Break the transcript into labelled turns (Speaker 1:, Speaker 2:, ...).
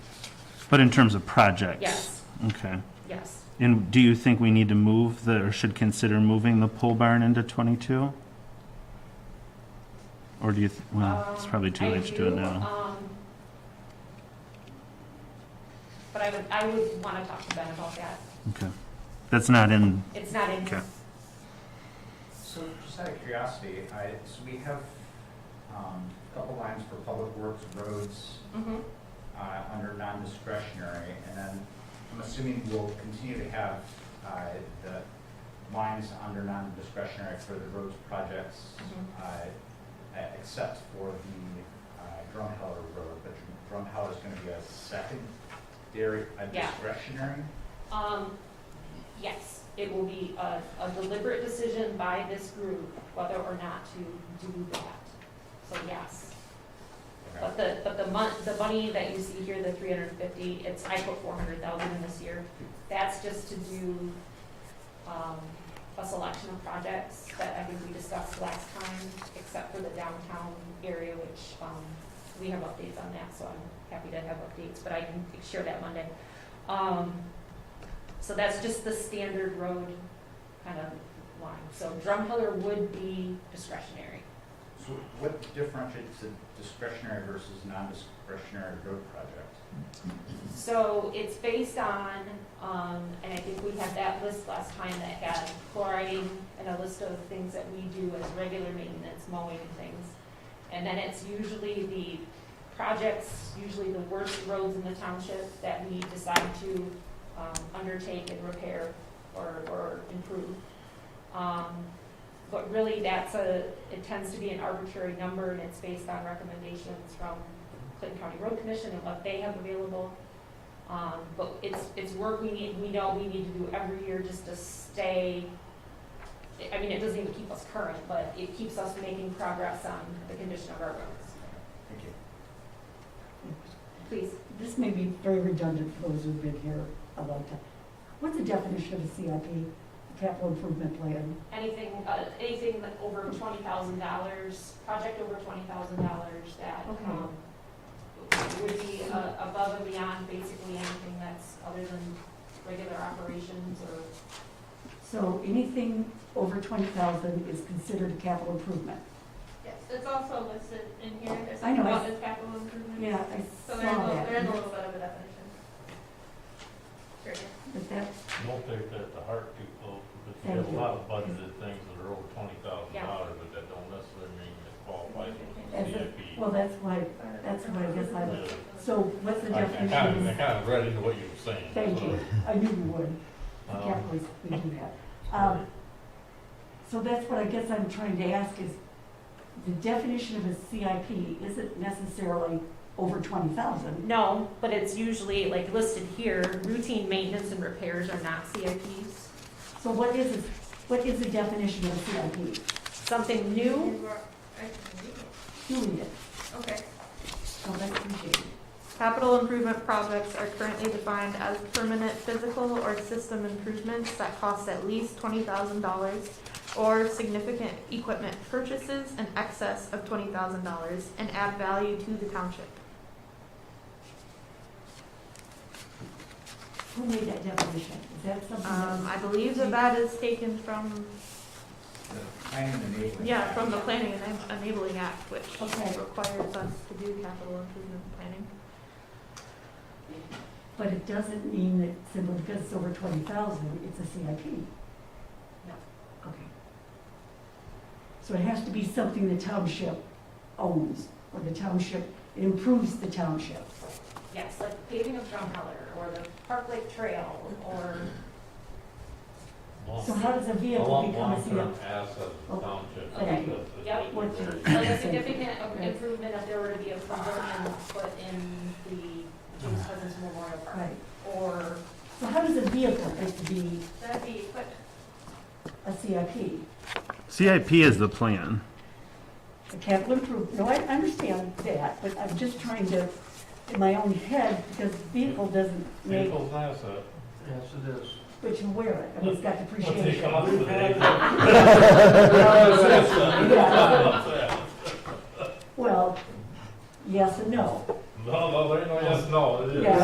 Speaker 1: But in terms of projects?
Speaker 2: Yes,
Speaker 1: Okay.
Speaker 2: yes.
Speaker 1: And do you think we need to move the, or should consider moving the pole barn into 22? Or do you, th- well, it's
Speaker 2: Um,
Speaker 1: probably too
Speaker 2: I
Speaker 1: late to do it now.
Speaker 2: um, But I would, I would want to talk to Ben about that.
Speaker 1: Okay. That's not in,
Speaker 2: It's not in here.
Speaker 1: Okay.
Speaker 3: So just out of curiosity, I, so we have, um, a couple lines for public works, roads,
Speaker 2: Mhm.
Speaker 3: uh, under non-discretionary, and then I'm assuming we'll continue to have, uh, the lines under non-discretionary for the roads projects,
Speaker 2: Mhm.
Speaker 3: uh, e- except for the, uh, Drumheller Road, but Drumheller's gonna be a secondary, a
Speaker 2: Yeah.
Speaker 3: discretionary?
Speaker 2: Um, yes, it will be a, a deliberate decision by this group whether or not to do that. So yes,
Speaker 3: Okay.
Speaker 2: but the, but the mon, the money that you see here, the three hundred and fifty, it's, I put four hundred thousand in this year. That's just to do, um, a selection of projects that I think we discussed last time, except for the downtown area, which, um, we have updates on that, so I'm happy to have updates, but I can share that Monday. Um, so that's just the standard road kind of line. So Drumheller would be discretionary.
Speaker 3: So what differentiates a discretionary versus non-discretionary road project?
Speaker 2: So it's based on, um, and I think we had that list last time that had chlorine and a list of things that we do as regular maintenance, mowing and things. And then it's usually the projects, usually the worst roads in the township that we decide to, um, undertake and repair or, or improve. Um, but really that's a, it tends to be an arbitrary number and it's based on recommendations from Clinton County Road Commission and what they have available. Um, but it's, it's work we need, we know we need to do every year just to stay, I mean, it doesn't even keep us current, but it keeps us making progress on the condition of our roads.
Speaker 3: Thank you.
Speaker 2: Please,
Speaker 4: This may be very redundant for those who've been here a long time. What's the definition of a CIP, capital improvement plan?
Speaker 2: anything, uh, anything that over twenty thousand dollars, project over twenty thousand dollars that,
Speaker 4: Okay.
Speaker 2: um, would be, uh, above and beyond basically anything that's other than regular operations or
Speaker 4: So anything over twenty thousand is considered a capital improvement.
Speaker 5: Yes, it's also listed in here, there's
Speaker 4: I
Speaker 5: something
Speaker 4: know, I-
Speaker 5: about the capital improvement.
Speaker 4: Yeah, I
Speaker 5: So
Speaker 4: saw
Speaker 5: there's a, there's a
Speaker 4: that.
Speaker 5: little bit of a definition. Sure.
Speaker 4: But that,
Speaker 6: Don't take that to heart too close, because we
Speaker 4: Thank
Speaker 6: have a
Speaker 4: you.
Speaker 6: lot of budgeted things that are over twenty thousand
Speaker 2: Yeah.
Speaker 6: dollars, but that don't necessarily mean it qualifies as
Speaker 4: As
Speaker 6: a
Speaker 4: a-
Speaker 6: CIP.
Speaker 4: well, that's why, that's what I guess I,
Speaker 6: Yeah.
Speaker 4: so what's the
Speaker 6: I I kind of, I
Speaker 4: definition?
Speaker 6: kind of read into what you were saying.
Speaker 4: Thank
Speaker 6: so,
Speaker 4: you, I knew you would, The
Speaker 6: um,
Speaker 4: capital, is- we do that. Um, So that's what I guess I'm trying to ask is, the definition of a CIP isn't necessarily over twenty thousand.
Speaker 2: No, but it's usually like listed here, routine maintenance and repairs are not CIPs.
Speaker 4: So what is, it- what is the definition of CIP?
Speaker 2: Something new,
Speaker 5: You are- I can read it.
Speaker 4: Doing it,
Speaker 5: Okay.
Speaker 4: so that's appreciated.
Speaker 5: Capital improvement projects are currently defined as permanent physical or system improvements that cost at least twenty thousand dollars or significant equipment purchases in excess of twenty thousand dollars and add value to the township.
Speaker 4: Who made that definition? Is that something
Speaker 5: Um, I
Speaker 4: that,
Speaker 5: believe that that is taken from,
Speaker 3: The Planning and enabling.
Speaker 5: yeah,
Speaker 3: act.
Speaker 5: from the Planning and Enabling Act, which
Speaker 4: Okay.
Speaker 5: requires us to do capital improvement planning.
Speaker 4: but it doesn't mean that simply because it's over twenty thousand, it's a CIP?
Speaker 2: No.
Speaker 4: Okay. So it has to be something the township owns, or the township improves the township.
Speaker 2: yes, like paving of Drumheller or the Park Lake Trail or,
Speaker 6: long-
Speaker 4: So how does a
Speaker 6: A
Speaker 4: vehicle
Speaker 6: long,
Speaker 4: become a
Speaker 6: long-term
Speaker 4: CIP?
Speaker 6: asset of the
Speaker 4: Oh,
Speaker 6: township.
Speaker 4: okay.
Speaker 6: That's- that's-
Speaker 2: Yep.
Speaker 4: What's
Speaker 6: that's-
Speaker 4: your-
Speaker 2: like a significant improvement if there were to be a pavilion put in the James Cousins Memorial Park.
Speaker 4: Right,
Speaker 2: Or,
Speaker 4: so how does a vehicle get to be
Speaker 5: That'd be equipment.
Speaker 4: a CIP?
Speaker 1: CIP is the plan.
Speaker 4: The capital improvement, no, I understand that, but I'm just trying to, in my own head, because vehicle doesn't make,
Speaker 6: Vehicle's an asset.
Speaker 7: Yes, it is.
Speaker 4: but you wear it, I mean, it's got
Speaker 6: We'll take
Speaker 4: depreciation.
Speaker 6: off the vehicle.
Speaker 4: Yeah. Well, yes and no.
Speaker 6: No, no, there ain't no yes, no. It is.
Speaker 4: Yeah.